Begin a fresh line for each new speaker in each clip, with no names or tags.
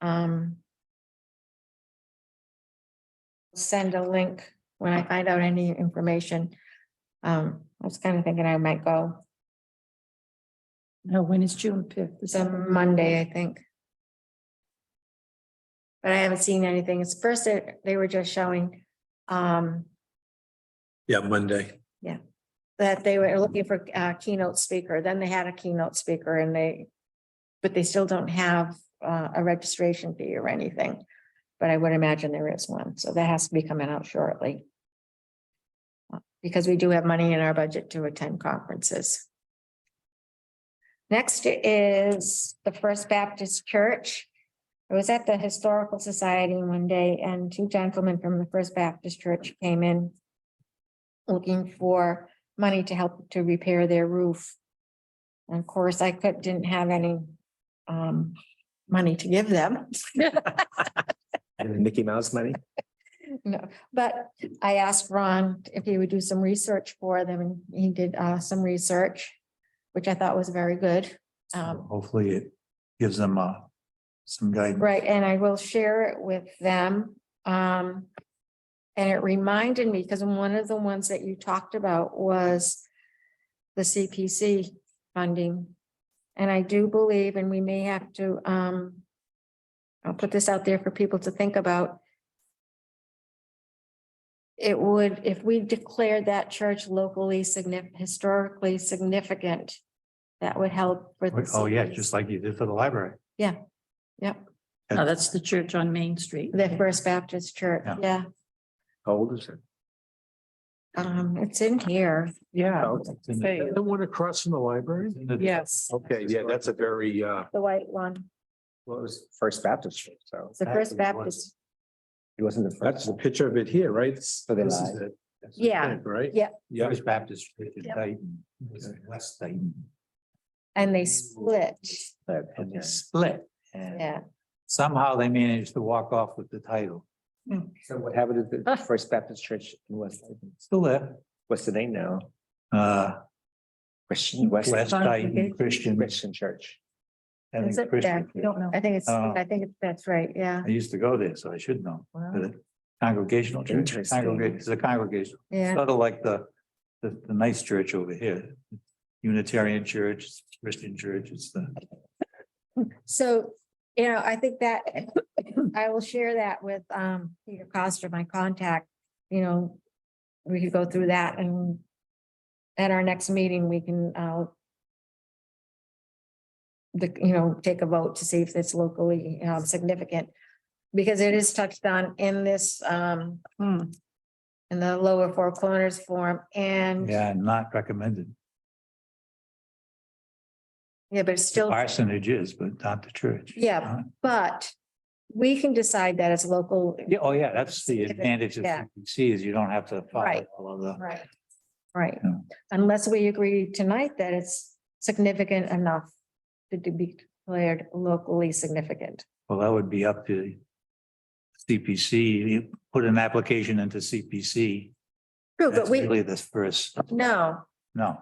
Um. Send a link when I find out any information. Um, I was kind of thinking I might go
No, when is June fifth? Is that-
some Monday, I think. But I haven't seen anything. It's first, they- they were just showing, um,
Yeah, Monday.
that they were looking for a keynote speaker, then they had a keynote speaker and they, but they still don't have uh, a registration fee or anything. But I would imagine there is one, so that has to be coming out shortly. Uh, Because we do have money in our budget to attend conferences. Next is the First Baptist Church. I was at the Historical Society one day and two gentlemen from the First Baptist Church came in looking for money to help to repair their roof. And of course, I could, didn't have any um money to give them,
And Mickey Mouse money?
no, but I asked Ron if he would do some research for them, and he did uh some research, which I thought was very good. Um,
Hopefully it gives them uh some guidance.
Right, and I will share it with them. Um. And it reminded me, because one of the ones that you talked about was the CPC funding. And I do believe, and we may have to, um. I'll put this out there for people to think about. It would, if we declared that church locally significant, historically significant, that would help. for the
Oh, yeah,
CPC.
just like you did for the library.
No, Oh, that's the church on Main Street.
The First Baptist Church,
Yeah.
yeah.
How old is it?
Um, it's in here.
Yeah,
Oh, The
Say.
one across from the library?
yes.
Okay, yeah, that's a very, uh,
The white one.
well, it was First Baptist, Church, so.
It's the First
Actually, it was.
Baptist.
It wasn't the. That's the picture of it here, right? This
they
is
lied.
it. That's the
Yeah.
thing, Right?
Yeah.
Yeah.
First Baptist. Church in
Yep.
Dayton. West Dayton.
And they split.
And they split. and
Yeah.
Somehow they managed to walk off with the title.
So what happened at the First Baptist Church in West,
Still there.
what's the name now?
Uh,
Christian West
West Dayton Christian.
Christian Church.
I think
Is it
Christian
that?
Church.
Don't know.
I think it's,
Oh.
I think it's- that's right. Yeah,
I used to go there, so I should know.
Wow.
The Congregational church,
Interesting.
congregate, it's a congregation.
yeah.
sort of like the, the, the nice church over here. Unitarian church, Christian church, it's the,
So, you know, I think that I will share that with um Peter Costa, my contact, you know. We could go through that and at our next meeting, we can uh the, you know, take a vote to see if it's locally um significant. Because it is touched on in this um
Hmm.
in the lower four corners form and,
yeah, not recommended.
yeah, but it's still,
Parsonage is, but not the church.
yeah, but we can decide that it's local.
Yeah, oh, yeah, that's the advantage of
Yeah.
CPC is you don't have to follow
Right.
all of the,
Right. Right,
Yeah.
unless we agree tonight that it's significant enough to de- be declared locally significant.
well, that would be up to CPC, you put an application into CPC.
True, but
That's
we,
really the first,
no,
no,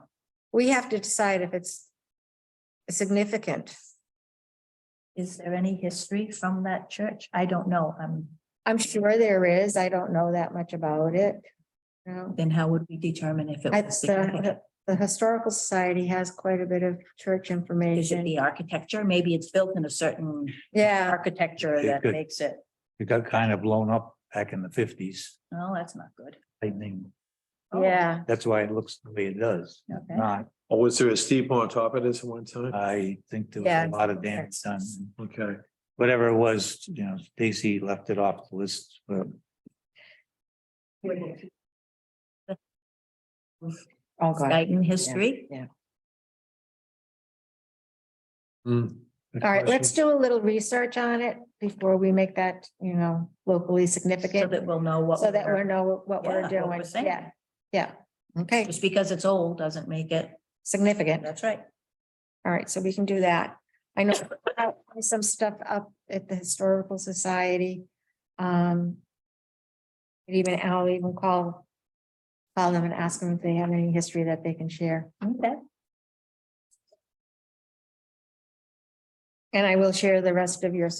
we have to decide if it's significant.
Is there any history from that church? I don't know. Um,
I'm sure there is, I don't know that much about it. You know,
then how would we determine if it
I-
was
the,
significant?
the Historical Society has quite a bit of church
Is it
information.
the architecture? Maybe it's built in a certain
Yeah,
architecture
It
that
could.
makes it,
it got kind of blown up back in the fifties.
oh, that's not good.
I think
Oh,
yeah,
that's why it looks the way it does,
Okay.
not
Oh, was there a steeple on top of this at one time?
I think there
Yeah.
was a lot of damage done.
Okay.
Whatever it was, you know, Stacy left it off the list. but
oh god,
Dayton history?
yeah.
the
All right, let's
question-
do a little research on it before we make that, you know, locally
So
significant.
that we'll know what.
So that we
we're-
know what we're
Yeah, what
doing,
saying.
yeah, yeah, okay,
Just because it's old doesn't make it,
significant,
that's right.
all right, so we can do that. I know uh, some stuff up at the Historical Society. Um. Even I'll even call, call them and ask them if they have any history that they can share,
Okay.
and I will share the rest of your